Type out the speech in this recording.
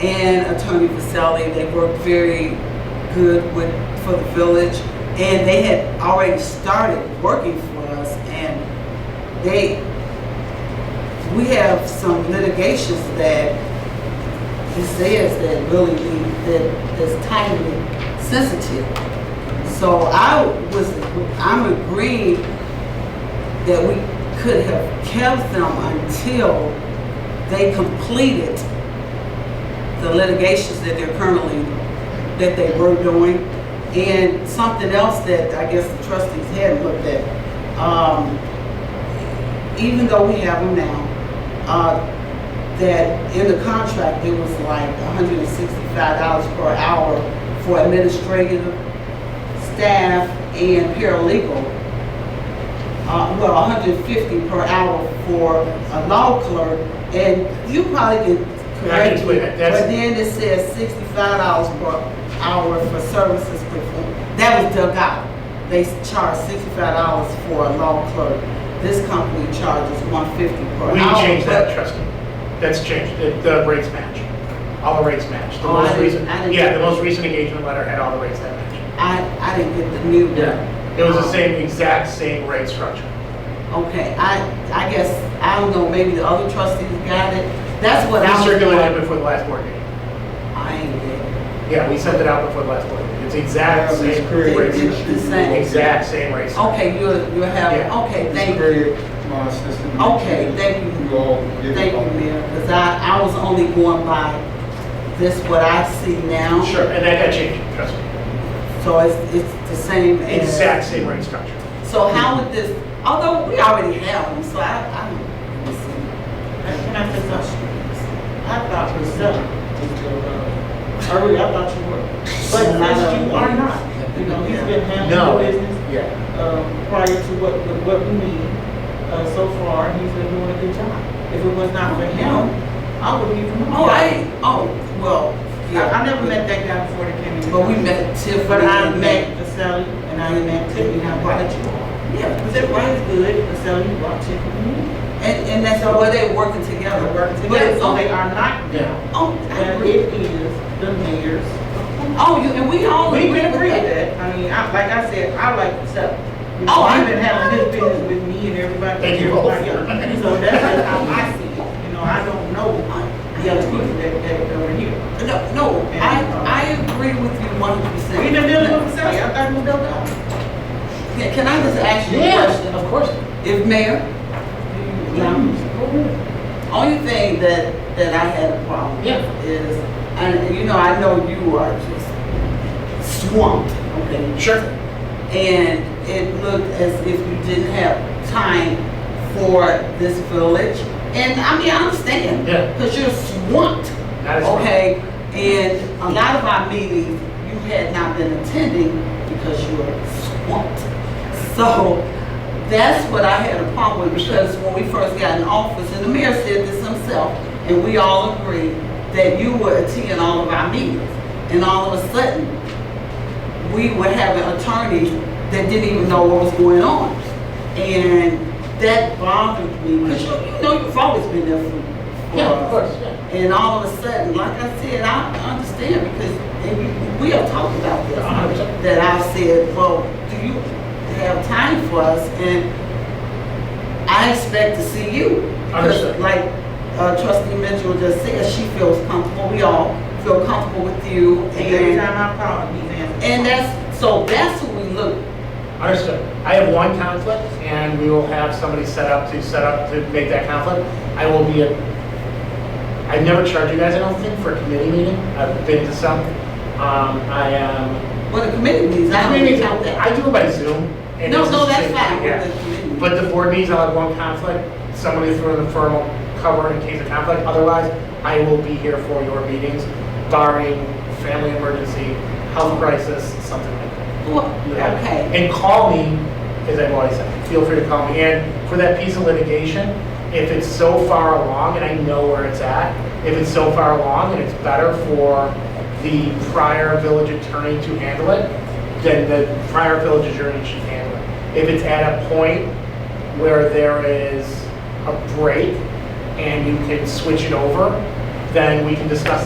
and Attorney Vasselli. They worked very good with, for the village. And they had already started working for us and they, we have some litigations that it says that really need, that, that's timely sensitive. So I was, I'm agreeing that we could have kept them until they completed the litigations that they're currently, that they were doing. And something else that I guess the trustees hadn't looked at, um, even though we have them now, uh, that in the contract, it was like hundred and sixty-five dollars per hour for administrative staff and paralegal. Uh, well, hundred and fifty per hour for a law clerk, and you probably can correct me, tweak it. That's- but then it says sixty-five dollars per hour for services performed. That was dug out. They charge sixty-five dollars for a law clerk. This company charges one fifty per hour. We changed that, but- trust me. That's changed. The, the rates match. All the rates match. The Oh, I most didn't- recent, I didn't- yeah, the most recent engagement letter had all the rates that match. I, I didn't get the new one. Um, It was the Oh. same, exact same rate structure. Okay, I, I guess, I don't know, maybe the other trustees got it. That's what I We was. circulated it before the last board meeting. I ain't get it. Yeah, we sent it out before the last board meeting. It's exact Yeah, it's same pretty rate It's structure. the same. Exact same rate structure. Okay, you're, you're having, Yeah. okay, thank you. Very, uh, system. Okay, thank you. You all give Thank you, it. Mayor, because I, I was only going by this, what I see now. Sure, and that got changed, trust me. So it's, it's the same as. Exact same rate structure. So how would this, although we already have them, so I, I don't, let me see. Can I just ask you this? I thought was done. I really, uh, I thought you were. But since you are not, you know, he's been No. handling the business, Yeah. um, prior to what, what- what we need. Uh, so far, he's been doing a good job. If it was not for him, I would leave him. Oh, I, oh, well, I, yeah. I never met that guy before they came in. But we met Tiffany. But I met Vasselli and I met Tiffany, and I brought you all. Yeah, Because was it right? everybody's good, Vasselli brought Tiffany in. And, and that's why they're working together. They're working But together, it's so only, they are not now. oh, I And agree. it is the mayor's Oh, you, and we all We agree can agree with with that. that. I mean, I, like I said, I like the stuff. Oh, I- I've been having his business with me and everybody. Thank you both. everybody else. So that's just how I see it. You know, I don't know the other people that, that over here. Oh, No, no, I, I agree with you one hundred percent. We done dealing with Sally. I thought we dealt out. Can can I just ask you a question? of course. If mayor, Only thing that, that I had a problem with is, and you know, I know you are just swamped, okay? Sure. And it looked as if you didn't have time for this village. And I mean, I understand. Yeah. Because you're swamped, That is. okay? And a lot of our meetings, you had not been attending because you were swamped. So that's what I had a problem with because when we first got in office, and the mayor said this himself, and we all agreed that you were attending all of our meetings. And all of a sudden, we were having attorneys that didn't even know what was going on. And that bothered me because you, you know, you've always been there for. Yeah, of course, And all of a sudden, like I said, I understand because, and you- we have talked about this A hundred percent. that I said, well, do you have time for us? And I expect to see you. Because Understood. Like uh, trustee Mitchell just said, she feels comfortable, we all feel comfortable with you. And every And, time I call, he's answering. and that's, so that's who we look, Understood. I have one conflict, and we will have somebody set up to set up to make that conflict. I will be, a- I've never charged you guys, I don't think, for a committee meeting. I've been to some. Um, I am. what the committee means, I don't even count that. I do it by Zoom. and No, it's no, the that's same fine thing, yeah. with the committee. But the board meetings, I'll have one conflict, somebody throw in the formal cover in case of conflict. Otherwise, I will be here for your meetings barring family emergency, health crisis, something like that. Well, you have. Okay, And call me, as I've always said, feel free to call me. And for that piece of litigation, if it's so far along, and I know where it's at, if it's so far along and it's better for the prior village attorney to handle it, then the prior village attorney should handle it. If it's at a point where there is a break and you can switch it over, then we can discuss